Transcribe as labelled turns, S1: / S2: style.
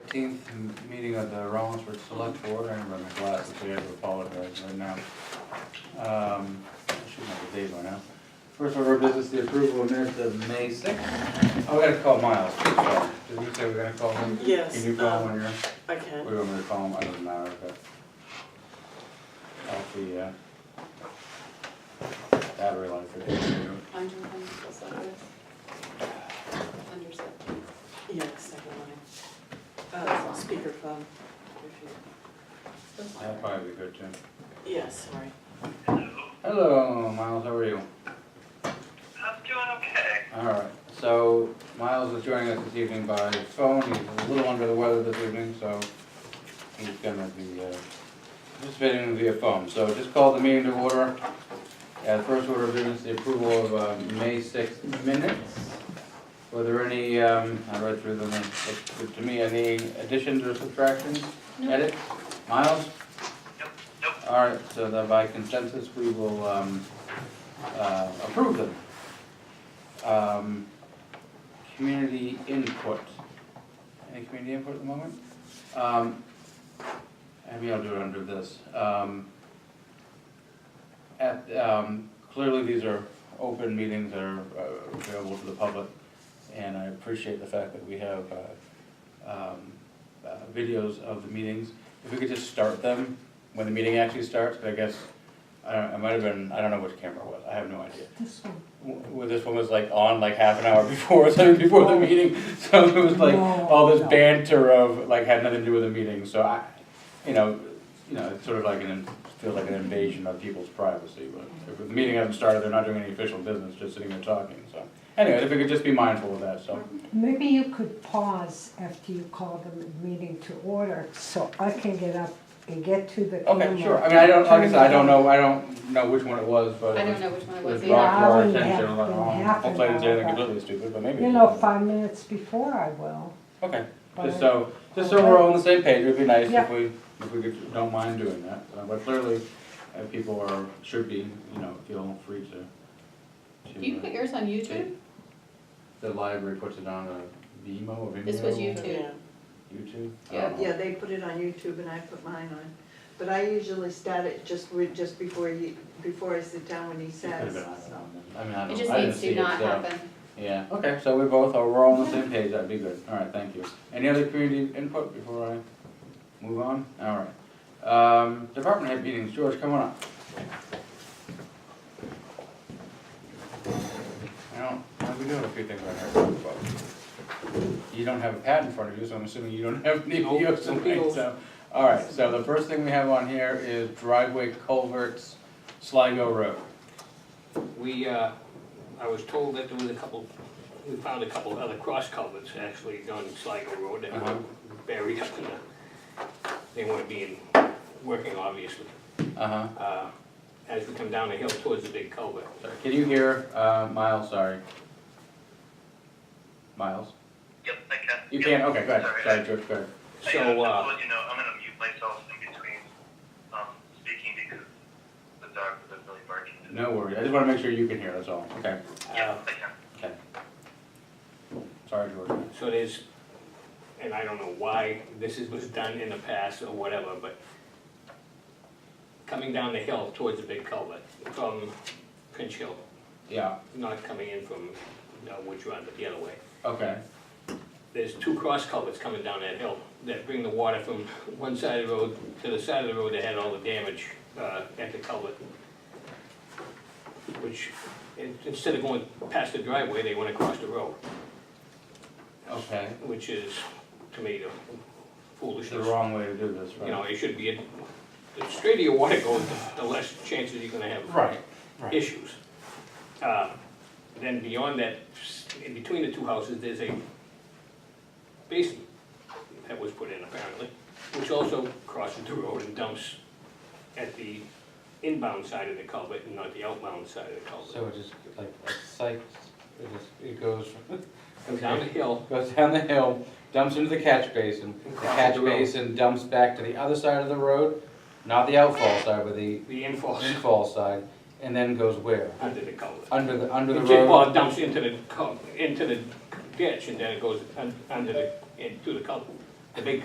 S1: thirteenth meeting of the Rollinsford Select Board, I remember my glasses, I have to apologize right now. Um, I should have the date by now. First order of business, the approval of minutes of May sixth. Oh, we gotta call Miles, sorry, did we say we're gonna call him?
S2: Yes,
S1: Can you call him
S2: um,
S1: when you're,
S2: I
S1: we
S2: can.
S1: want me to call him, I don't know, okay. Off the, uh, battery life for the computer.
S3: Under one, so Under seven.
S2: Yeah, second line.
S4: Oh,
S2: Uh, speakerphone. if
S3: That's fine,
S1: that'd
S3: right?
S1: probably be good, Jim.
S2: you- Yeah, sorry.
S1: Hello, Miles, how are you?
S5: I'm doing okay.
S1: All right, so Miles is joining us this evening by phone, he's a little under the weather this evening, so he's gonna be uh, participating via phone. So just call the meeting to order. Uh, First order of business, the approval of uh, May 6th minutes. Were there any, um, I read through them, it looked to me, any additions or subtractions,
S3: No.
S1: edits? Miles?
S5: Nope, nope.
S1: All right, so that by consensus, we will um, uh, approve them. Um, Community input. Any community input at the moment? Um, Maybe I'll do it under this. Um, At, um, clearly, these are open meetings that are uh, available to the public, and I appreciate the fact that we have uh, um, uh, videos of the meetings. If we could just start them when the meeting actually starts, but I guess, I don't, it might have been, I don't know which camera it was, I have no idea.
S6: This one.
S1: W- Well, this one was like on like half an hour before, or something before the meeting, so it was like all this
S6: Oh. No.
S1: banter of, like, had nothing to do with the meeting, so I, you know, you know, it's sort of like an, in- feels like an invasion of people's privacy, but if the meeting hasn't started, they're not doing any official business, just sitting there talking, so. Anyway, if we could just be mindful of that,
S6: Mm-hmm.
S1: so,
S6: Maybe you could pause after you call the meeting to order, so I can get up and get to the camera.
S1: okay, sure, I mean, I don't, like I said, I don't know, I don't know which one it was, but
S3: I
S1: it was
S3: don't know which one it was
S1: was
S3: either.
S1: brought to our
S6: Yeah,
S1: attention,
S6: half-
S1: like, oh,
S6: half an
S1: hopefully I didn't say
S6: hour,
S1: anything
S6: but-
S1: completely stupid, but maybe.
S6: You
S1: it
S6: know,
S1: was.
S6: five minutes before I will.
S1: Okay,
S6: but-
S1: just so, just so we're all on the same page, it'd be nice if
S6: Yeah.
S1: we, if we could, don't mind doing that, Uh, but clearly, uh, people are, should be, you know, feel free to.
S3: Do you
S1: to, uh,
S3: put yours on YouTube?
S1: The library puts it on a Vimeo or Vimeo.
S3: This was YouTube.
S2: Yeah,
S1: YouTube? Oh, I
S3: Yeah.
S1: don't know.
S4: Yeah, they put it on YouTube and I put mine on, but I usually start it just with, just before you, before I sit down when he
S1: It could've
S4: says,
S1: been on
S4: so.
S1: that. I mean, I
S3: It
S1: don't,
S3: just
S1: I didn't
S3: needs
S1: see
S3: to
S1: it,
S3: not
S1: so,
S3: happen.
S1: yeah, okay, so we both are, we're all on the same page, that'd be good, all right, thank you. Any other community input before I move on? All right, um, department head meetings, George, come on up. I don't, well, we do have a few things on here to talk about. You don't have a pad in front of you, so I'm assuming you don't have any
S7: Nope,
S1: POs
S7: no
S1: tonight,
S7: POs.
S1: so. All right, so the first thing we have on here is driveway culverts, Sligo Road.
S7: We, uh, I was told that there was a couple, we found a couple other cross culverts actually on Sligo Road that
S1: Uh-huh.
S7: were buried up in the, they weren't being, working obviously.
S1: Uh-huh.
S7: Uh, As we come down the hill towards the big culvert.
S1: Sorry, Can you hear, uh, Miles, sorry? Miles?
S5: Yep, I can.
S1: You
S5: Yep.
S1: can, okay, go ahead,
S5: Sorry.
S1: sorry, George, go ahead.
S5: Hey, uh,
S7: So,
S5: just to
S7: uh,
S5: let you know, I'm gonna mute myself in between, um, speaking because the dogs are really barking.
S1: No uh, worries, I just wanna make sure you can hear, that's all, okay,
S7: uh,
S5: I can.
S1: okay. Sorry, George.
S7: so there's, and I don't know why this is, was done in the past or whatever, but coming down the hill towards the big culvert from Pinch Hill,
S1: Yeah,
S7: not coming in from uh, Woods Run, but the other way.
S1: okay,
S7: there's two cross culverts coming down that hill that bring the water from one side of the road to the side of the road that had all the damage uh, at the culvert. Which, in- instead of going past the driveway, they went across the road,
S1: okay.
S7: which is, to me, the
S1: It's the
S7: foolishness.
S1: wrong way to do this,
S7: You know,
S1: right?
S7: it should be, the straighter your water goes, the less chances you're gonna have
S1: Right, right.
S7: issues. Uh, Then beyond that, in between the two houses, there's a basin that was put in apparently, which also crosses the road and dumps at the inbound side of the culvert and not the outbound side of the culvert.
S1: So it just, like, a site, it just, it goes,
S7: Comes down the hill,
S1: goes down the hill, dumps into the catch basin, the
S7: Across
S1: catch
S7: the road.
S1: basin dumps back to the other side of the road, not the outfall side, but the
S7: the infall
S1: infall side, and then goes where?
S7: under the culvert.
S1: Under the, under the
S7: It just- Well,
S1: road?
S7: it dumps into the, cul- into the ditch and then it goes un- under the, into the culvert, the big